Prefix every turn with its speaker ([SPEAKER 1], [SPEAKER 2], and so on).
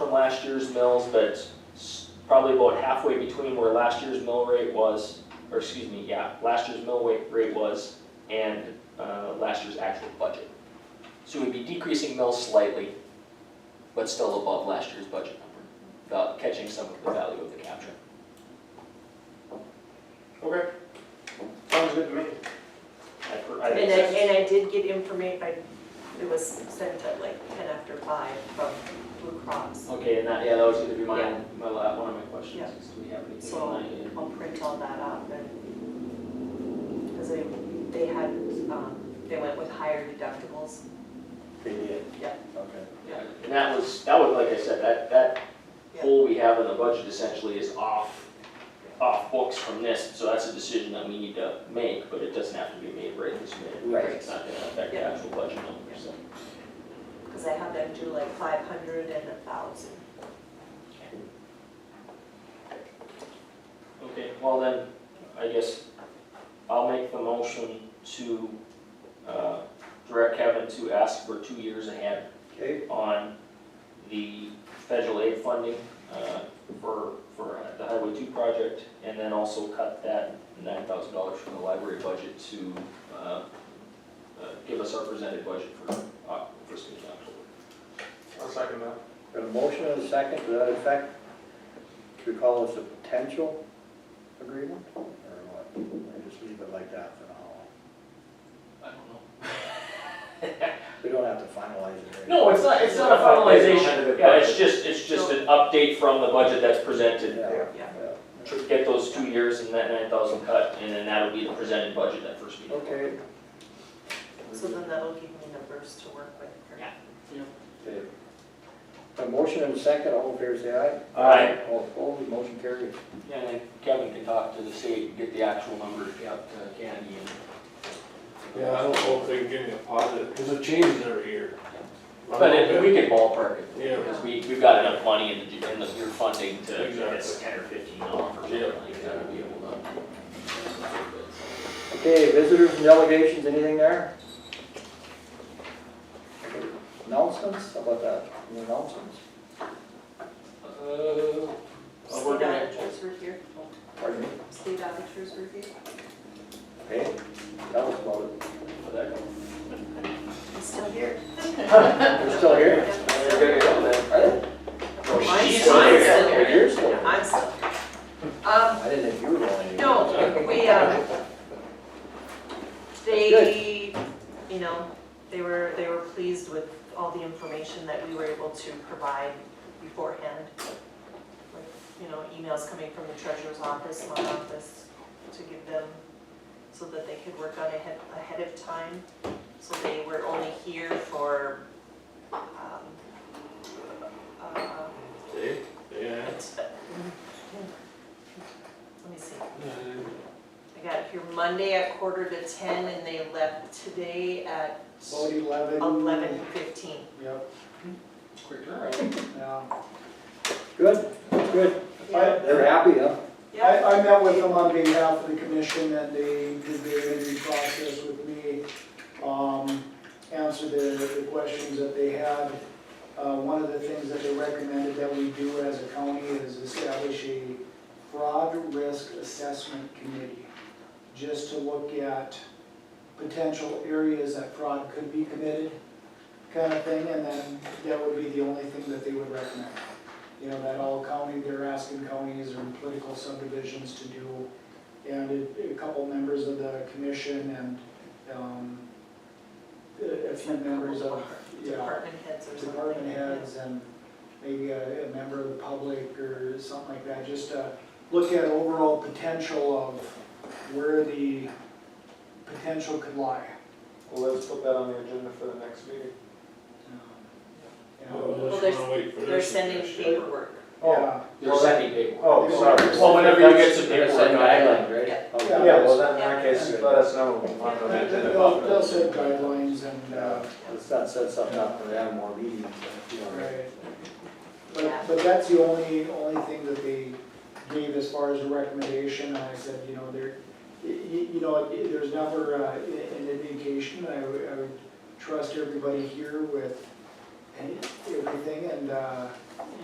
[SPEAKER 1] last year's mills, but s- probably about halfway between where last year's mill rate was, or excuse me, yeah, last year's mill wa- rate was and uh, last year's actual budget. So we'd be decreasing mills slightly, but still above last year's budget number, without catching some of the value of the capture.
[SPEAKER 2] Okay. Sounds good to me.
[SPEAKER 1] I per- I
[SPEAKER 3] And I,
[SPEAKER 1] think that's-
[SPEAKER 3] and I did get information, I, it was sent at like ten after five from Blue Cross,
[SPEAKER 1] Okay, and that, yeah, that was gonna be my,
[SPEAKER 3] Yeah.
[SPEAKER 1] my, la- uh, one of my questions,
[SPEAKER 3] Yeah.
[SPEAKER 1] is do we have anything
[SPEAKER 3] so
[SPEAKER 1] on that yet?
[SPEAKER 3] I'll print all that up and. Cause they, they had, um, they went with higher deductibles,
[SPEAKER 2] They did.
[SPEAKER 3] Yeah.
[SPEAKER 2] Okay.
[SPEAKER 3] Yeah.
[SPEAKER 1] And that was, that was, like I said, that, that
[SPEAKER 3] Yeah.
[SPEAKER 1] hole we have in the budget essentially is off, off books from this, so that's a decision that we need to make, but it doesn't have to be made right this minute. because
[SPEAKER 3] Right.
[SPEAKER 1] It's not gonna affect the
[SPEAKER 3] Yeah.
[SPEAKER 1] actual budget number, so.
[SPEAKER 3] cause I had them do like five hundred and a thousand.
[SPEAKER 1] Okay, well then, I guess I'll make the motion to, uh, direct Kevin to ask for two years ahead
[SPEAKER 2] Okay,
[SPEAKER 1] on the federal aid funding uh, for, for uh, the Highway 2 project, and then also cut that $9,000 from the library budget to uh, uh, give us our presented budget for, Oc- for school in October.
[SPEAKER 2] I'll second that.
[SPEAKER 4] Got a motion and a second to that effect. Should we call this a potential agreement or what? Or just leave it like that for now?
[SPEAKER 1] I don't
[SPEAKER 4] We don't have to finalize it. right?
[SPEAKER 1] know. No, it's not, it's not a finalization, yeah, it's just, it's just an update from the budget that's presented.
[SPEAKER 4] Yeah,
[SPEAKER 3] Yeah.
[SPEAKER 4] yeah.
[SPEAKER 1] To Get those two years and that 9,000 cut, and then that'll be the presented budget that first meeting.
[SPEAKER 4] Okay.
[SPEAKER 3] So then that'll give me numbers to work with. for-
[SPEAKER 1] Yeah.
[SPEAKER 4] Okay. A motion and a second, all in favor say aye.
[SPEAKER 1] Aye.
[SPEAKER 4] All opposed, motion carried.
[SPEAKER 1] Yeah, and then Kevin can talk to the state, and get the actual numbers out to Candy and
[SPEAKER 5] Yeah, I don't know if they can give me a positive, because it changes every year.
[SPEAKER 1] But if we could ballpark it,
[SPEAKER 5] Yeah,
[SPEAKER 1] because we, we've got enough money in the, in the, your funding to,
[SPEAKER 5] Exactly.
[SPEAKER 1] it's ten or fifteen off or something
[SPEAKER 5] Yeah.
[SPEAKER 1] like that, we'll be able to.
[SPEAKER 4] Okay, visitors and delegations, anything there? Announcements, how about that? Any announcements?
[SPEAKER 1] Uh, well, we're
[SPEAKER 3] State
[SPEAKER 1] gonna,
[SPEAKER 3] auditors were here,
[SPEAKER 4] Pardon me?
[SPEAKER 3] state auditors were here,
[SPEAKER 4] Okay, that was about it.
[SPEAKER 1] where'd that go?
[SPEAKER 3] he's still here.
[SPEAKER 4] We're still here?
[SPEAKER 1] There we go, then.
[SPEAKER 4] Are they?
[SPEAKER 3] Mine's
[SPEAKER 1] she's
[SPEAKER 3] still
[SPEAKER 1] here.
[SPEAKER 3] here.
[SPEAKER 4] You're still here.
[SPEAKER 3] I'm still here. Um,
[SPEAKER 4] I didn't think you were going anywhere.
[SPEAKER 3] No, we, um, they, you know, they were, they were pleased with all the information that we were able to provide beforehand. Like, You know, emails coming from the treasurer's office, my office, to give them, so that they could work on ahead, ahead of time. So they were only here for, um, uh,
[SPEAKER 5] they, yeah.
[SPEAKER 3] it's- let me see. I got here Monday at quarter to ten and they left today at
[SPEAKER 6] Vote eleven.
[SPEAKER 3] eleven fifteen.
[SPEAKER 6] Yep,
[SPEAKER 1] Quick turnaround.
[SPEAKER 6] yeah.
[SPEAKER 4] Good, good. They're happy, huh?
[SPEAKER 6] I,
[SPEAKER 3] Yeah,
[SPEAKER 6] I met with them on behalf of the commission and they did their interview process with me. Um, answered the, the questions that they had. Uh, one of the things that they recommended that we do as a county is establish a fraud risk assessment committee. Just to look at potential areas that fraud could be committed, kind of thing, and then that would be the only thing that they would recommend. you know, that all county, they're asking counties or political subdivisions to do. And a- a couple members of the commission and, um, a a few members of, yeah,
[SPEAKER 3] department heads or something.
[SPEAKER 6] department heads and maybe a, a member of the public or something like that, just to look at overall potential of where the potential could lie.
[SPEAKER 2] Well, let's put that on the agenda for the next meeting.
[SPEAKER 6] um, you know.
[SPEAKER 3] Well,
[SPEAKER 5] Unless you
[SPEAKER 3] there's-
[SPEAKER 5] wanna wait for this.
[SPEAKER 3] They're sending
[SPEAKER 5] information.
[SPEAKER 3] paperwork.
[SPEAKER 2] Yeah.
[SPEAKER 1] You're sending paperwork.
[SPEAKER 2] Oh, sorry.
[SPEAKER 1] Well, whenever you get some paperwork, I,
[SPEAKER 4] guidelines, right?
[SPEAKER 6] Yeah.
[SPEAKER 4] Okay.
[SPEAKER 2] Yeah, well, then in
[SPEAKER 3] Yeah.
[SPEAKER 2] that case, let us know. when we're on the
[SPEAKER 6] They-
[SPEAKER 2] agenda.
[SPEAKER 6] They'll, they'll set guidelines and, uh,
[SPEAKER 4] Yeah, Let's not set something up for them more meetings. you know, right?
[SPEAKER 6] Right.
[SPEAKER 3] Yeah.
[SPEAKER 6] But, but that's the only, only thing that they gave as far as a recommendation, and I said, you know, there, you, you know, it- there's never uh, i- an indication, I would, I would trust everybody here with any- everything, and, uh,